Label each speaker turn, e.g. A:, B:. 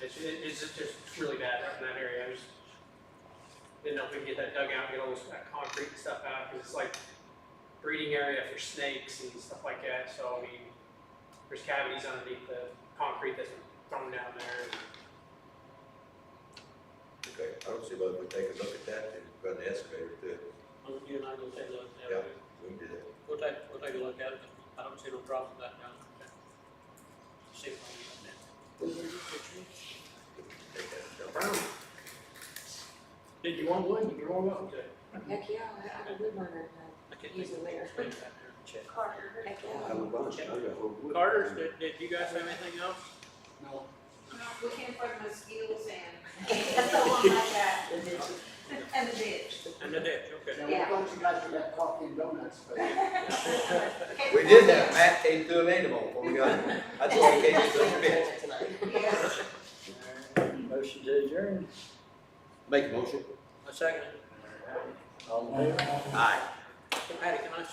A: It's, it- it's just- just really bad up in that area, I just didn't know if we could get that dug out, get all this, that concrete and stuff out, because it's like breeding area for snakes and stuff like that, so I mean, there's cavities underneath the concrete that's been thrown down there, and
B: Okay, I don't see why we take a look at that and run the excavator through it.
C: Well, you and I go take a look at
B: Yeah.
C: it.
B: We can do that.
C: We'll take, we'll take a look at it. I don't see no problem with that, John. See if we can get
B: Take that.
A: burn them. Did you want one, you're all welcome to.
D: Heck, yeah, I I have a wood burner,
C: that. I can't
D: Use
C: think
D: the
C: of
D: layer.
C: anything back there to check.
D: uh, heck, yeah.
B: I would want to- I got a whole wood.
C: Carter, did, did you guys have anything else?
E: No,
F: We can't find mosquitoes and, and so on like that,
E: it is,
F: and the ditch.
C: And the ditch, okay.
E: now, we thought you guys would have coffee and donuts, but
B: We did that, Matt came through an animal before we got here. I told him, "Can't do something big."
F: Yes.
G: Motion to adjourn.
B: Make a motion.
C: A second.
G: All in favor?
B: Aye.
C: Patty, can I